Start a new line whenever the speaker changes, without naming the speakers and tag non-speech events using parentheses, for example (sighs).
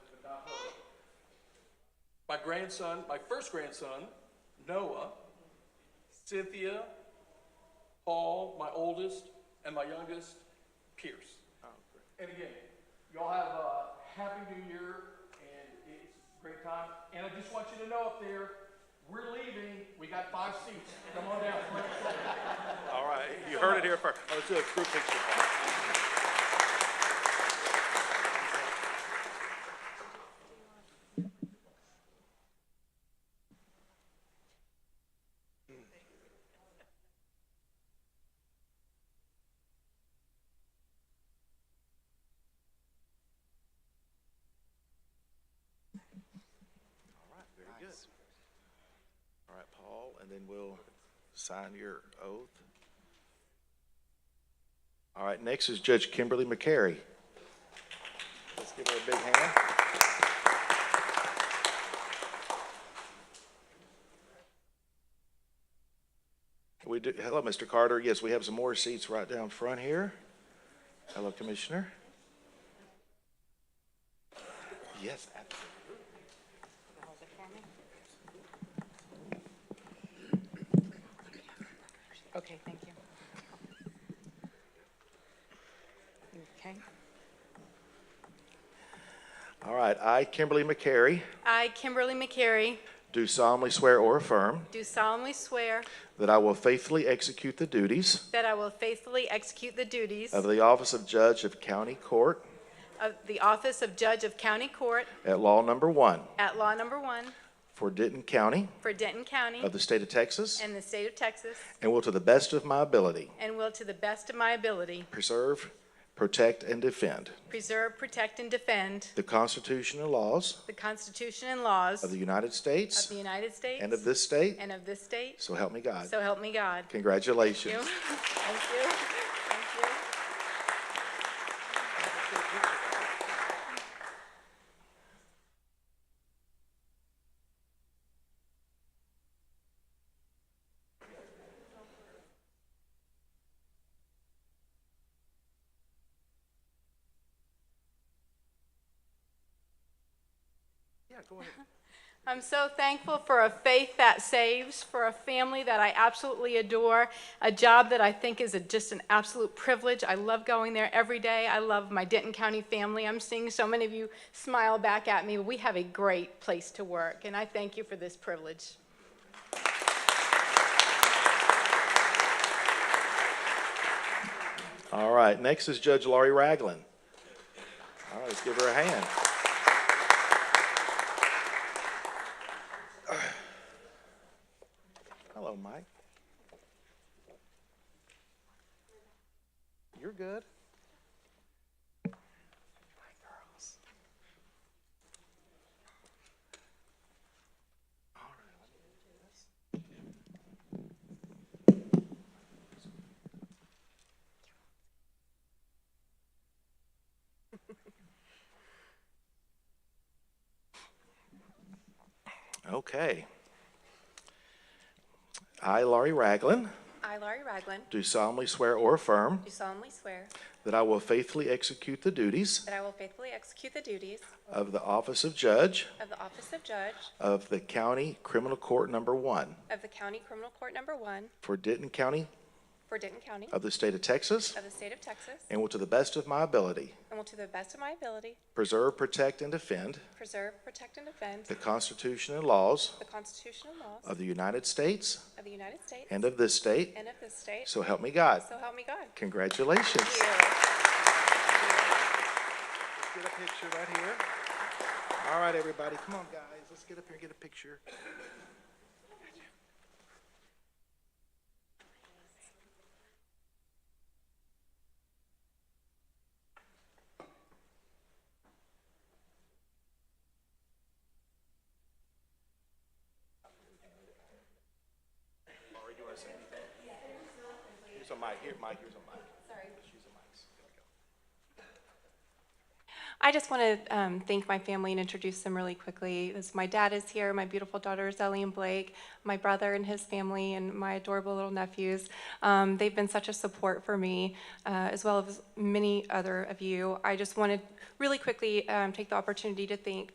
My grandson, my first grandson, Noah, Cynthia, Paul, my oldest, and my youngest, Pierce. And again, y'all have a happy new year, and it's a great time. And I just want you to know up there, we're leaving. We got five seats. Come on down.
All right, you heard it here first. Let's do a group picture. All right, very good. All right, Paul, and then we'll sign your oath. All right, next is Judge Kimberly McCary. Let's give her a big hand. We do, hello, Mr. Carter. Yes, we have some more seats right down front here. Hello, Commissioner. Yes, absolutely.
Okay, thank you. Okay.
All right, I, Kimberly McCary,
I, Kimberly McCary,
do solemnly swear or affirm
do solemnly swear
that I will faithfully execute the duties
that I will faithfully execute the duties
of the office of Judge of County Court
of the office of Judge of County Court
at Law Number One
at Law Number One
for Denton County
for Denton County
of the State of Texas,
and the state of Texas,
and will to the best of my ability
and will to the best of my ability
preserve, protect, and defend
preserve, protect, and defend
the Constitution and laws
the Constitution and laws
of the
of
United States
the United States
and of this state,
and of this state.
so help me God.
So help me God. Thank you.
Congratulations.
Thank you. Thank you. I'm so thankful for a faith that saves, for a family that I absolutely adore, a job that I think is a, just an absolute privilege. I love going there every day. I love my Denton County family. I'm seeing so many of you smile back at me. We have a great place to work, and I thank you for this privilege.
All right, next is Judge Laurie Ragland. All right, let's give her a hand. (sighs) Hello, Mike. You're good. My girls. All right, let me do this. Okay. I, Laurie Ragland,
I, Laurie Ragland,
do solemnly swear or affirm
do solemnly swear
that I will faithfully execute the duties
that I will faithfully execute the duties
of the office of judge
of the Office of Judge
of the County Criminal Court Number One
of the County Criminal Court Number One
for Denton County
for Denton County
of the State of Texas
of the State of Texas,
and will to the best of my ability
and will to the best of my ability
preserve, protect, and defend
preserve, protect, and defend
the Constitution and laws
the Constitution and laws
of the United States
of the United States
and of this state,
and of this state.
so help me God.
So help me God.
Congratulations.
Thank you.
Let's get a picture right here. All right, everybody, come on, guys, let's get up here and get a picture. Laura, do you want to say anything? Here's a mic, here, Mike, here's a mic. Sorry. She's a mic, so there we go.
I just want to um, thank my family and introduce them really quickly. This, my dad is here, my beautiful daughters, Ellie and Blake, my brother and his family, and my adorable little nephews. Um, they've been such a support for me, uh, as well as many other of you. I just want to really quickly um, take the opportunity to thank